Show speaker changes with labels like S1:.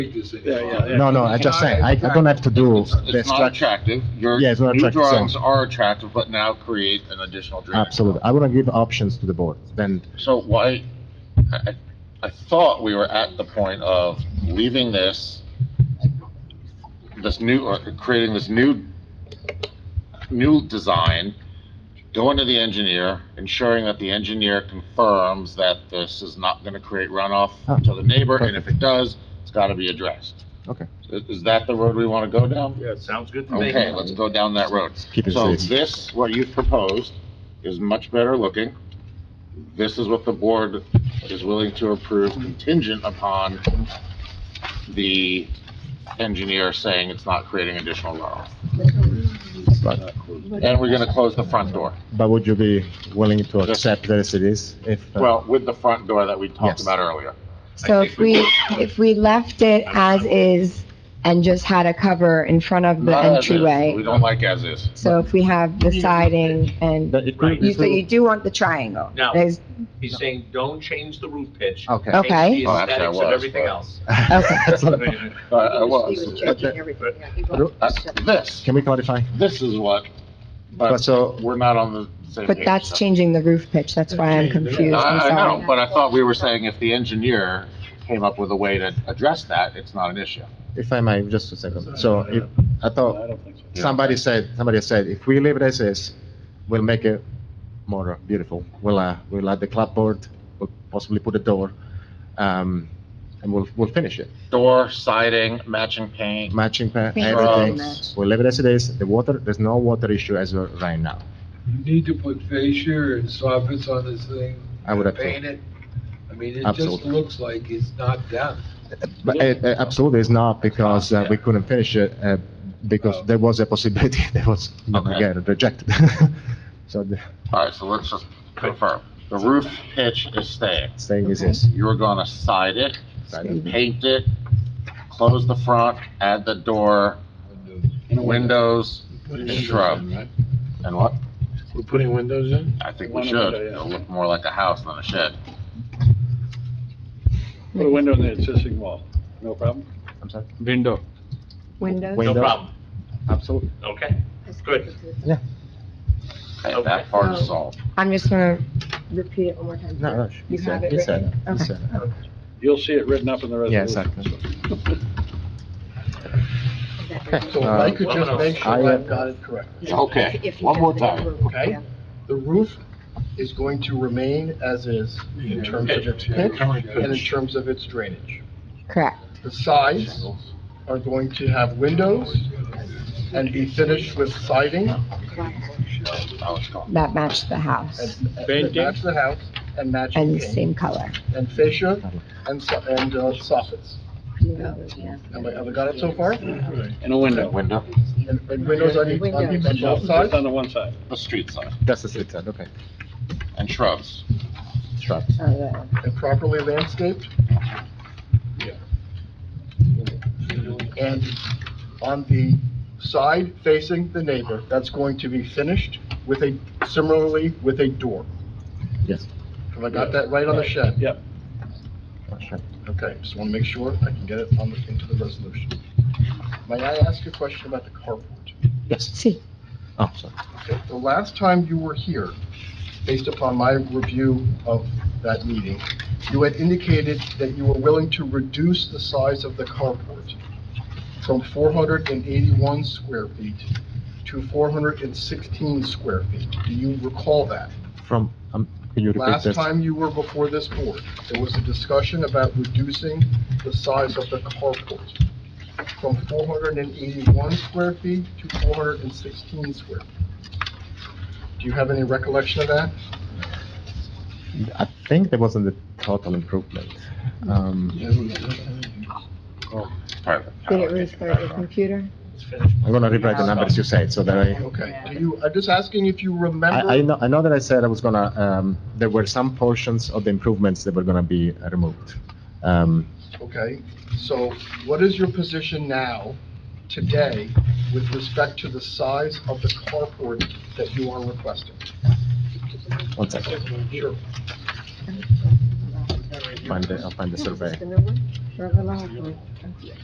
S1: figures in.
S2: Yeah, yeah, yeah.
S3: No, no, I just saying, I, I don't have to do
S4: It's
S3: the
S4: it's not
S3: structure.
S4: attractive. Your
S3: Yeah, it's not
S4: new
S3: attractive, so-
S4: drawings are attractive, but now create an additional drainage.
S3: Absolutely. I want to give options to the board, then,
S4: So why, I, I thought we were at the point of leaving this, this new, or creating this new, new design, going to the engineer, ensuring that the engineer confirms that this is not gonna create runoff
S3: Ah,
S4: to the neighbor, and if it does, it's gotta be addressed.
S3: Okay.
S4: Is is that the road we wanna go down?
S2: Yeah, sounds good to me.
S4: Okay, let's go down that road.
S3: keep it
S4: So
S3: safe.
S4: this, what you've proposed, is much better looking. This is what the board is willing to approve contingent upon the engineer saying it's not creating additional runoff.
S3: But
S4: And we're gonna close the front door.
S3: but would you be willing to accept that as it is? If, uh,
S4: Well, with the front door that we talked
S3: Yes.
S4: about earlier.
S5: So if we, if we left it as is and just had a cover in front of the
S4: Not as is. We
S5: entryway,
S4: don't like as is.
S5: so if we have the siding and,
S3: that it could-
S2: Right.
S5: you- so you do want the triangle?
S2: No.
S5: There's-
S2: He's saying, don't change the roof pitch.
S3: Okay.
S5: Okay.
S2: Change
S4: Oh,
S2: the
S4: actually, I
S2: aesthetics
S4: was,
S2: of everything
S4: but-
S2: else.
S3: That's not a problem.
S4: Uh, I was.
S3: judging
S2: everything.
S4: Uh, This,
S3: Can we clarify?
S4: this is what,
S3: But
S4: but
S3: so,
S4: we're not on the same page.
S5: But that's
S4: so.
S5: changing the roof pitch, that's why I'm confused, I'm
S4: I, I know,
S5: sorry.
S4: but I thought we were saying if the engineer came up with a way to address that, it's not an issue.
S3: if I may, just a second. So if, I thought
S2: I don't think so.
S3: somebody said, somebody said, if we leave it as is, we'll make it more beautiful. We'll, uh, we'll add the clapboard, we'll possibly put a door, um, and we'll, we'll finish it.
S4: Door, siding, matching paint,
S3: matching pa-
S5: Thank you
S4: very
S3: everything.
S5: much.
S3: We leave it as it is. The water, there's no water issue as of right now.
S1: You need to put fascia and soffits on this thing.
S3: I would agree.
S1: Paint it. I mean, it just
S3: Absolutely.
S1: looks like it's not done.
S3: But it, it absolutely is not because uh, we couldn't finish it uh, because there was a possibility that was
S4: Okay.
S3: again rejected. so the
S4: all right, so let's just confirm. The roof pitch is staying.
S3: saying is this.
S4: You're gonna side it,
S3: Right?
S4: paint it, close the front, add the door, windows, shrub, and what?
S6: We're putting windows in?
S4: I think we should. It'll look more like a house than a shed.
S2: Put a window in the existing wall, no problem?
S3: I'm sorry.
S6: Window.
S5: Windows?
S2: No
S3: Window.
S2: problem,
S3: Absolutely.
S2: okay, good.
S4: Okay, that part is solved.
S5: I'm just gonna repeat it one more time.
S3: No, no. she-
S5: You
S3: he said-
S5: have it
S3: he said
S5: written?
S3: it. He
S5: Okay.
S3: said it.
S2: You'll see it written up in the
S3: Yeah,
S2: resolution.
S3: exactly.
S6: So if
S3: Uh,
S6: I could just make
S3: I
S6: sure
S3: have-
S6: I've got it correct,
S4: Okay, one more time.
S6: okay? The roof is going to remain as is in terms of its pitch and in terms of its drainage.
S5: Correct.
S6: The sides are going to have windows and be finished with siding
S4: Now it's gone.
S5: That matched the house
S6: and and match the house and matching
S5: and the
S6: paint
S5: same color.
S6: and fascia and so- and uh, soffits. Have I have I got it so far? And
S2: In a window,
S4: Window,
S6: and windows on each, on each- on both
S2: just
S6: sides?
S2: on the one side.
S4: the street side,
S3: That's the street side. Okay.
S4: and shrubs.
S3: Shrub.
S6: and properly landscaped. And on the side facing the neighbor, that's going to be finished with a, similarly with a door.
S3: Yes.
S6: Have I got that right on the shed?
S2: Yep.
S3: Shrub.
S6: Okay, just want to make sure I can get it on, the- into the resolution. May I ask a question about the carport?
S3: Yes.
S5: See,
S3: Oh, sorry.
S6: Okay, The last time you were here, based upon my review of that meeting, you had indicated that you were willing to reduce the size of the carport from 481 square feet to 416 square feet. Do you recall that?
S3: From um, can you repeat
S6: Last
S3: this?
S6: time you were before this board, there was a discussion about reducing the size of the carport from 481 square feet to 416 square. feet. Do you have any recollection of that?
S3: I think there wasn't a total improvement. Um,
S2: Oh.
S4: Perfect.
S5: did it restart your computer?
S3: I'm gonna rewrite the numbers you said so that I.
S6: Okay, do you, I'm just asking if you
S3: I, I
S6: remember,
S3: know, I know that I said I was gonna, um, there were some portions of the improvements that were gonna be uh, removed. Um,
S6: okay? So what is your position now, today, with respect to the size of the carport that you are requesting?
S3: one second,
S6: Sure.
S3: find the, I'll find the survey.
S5: further along.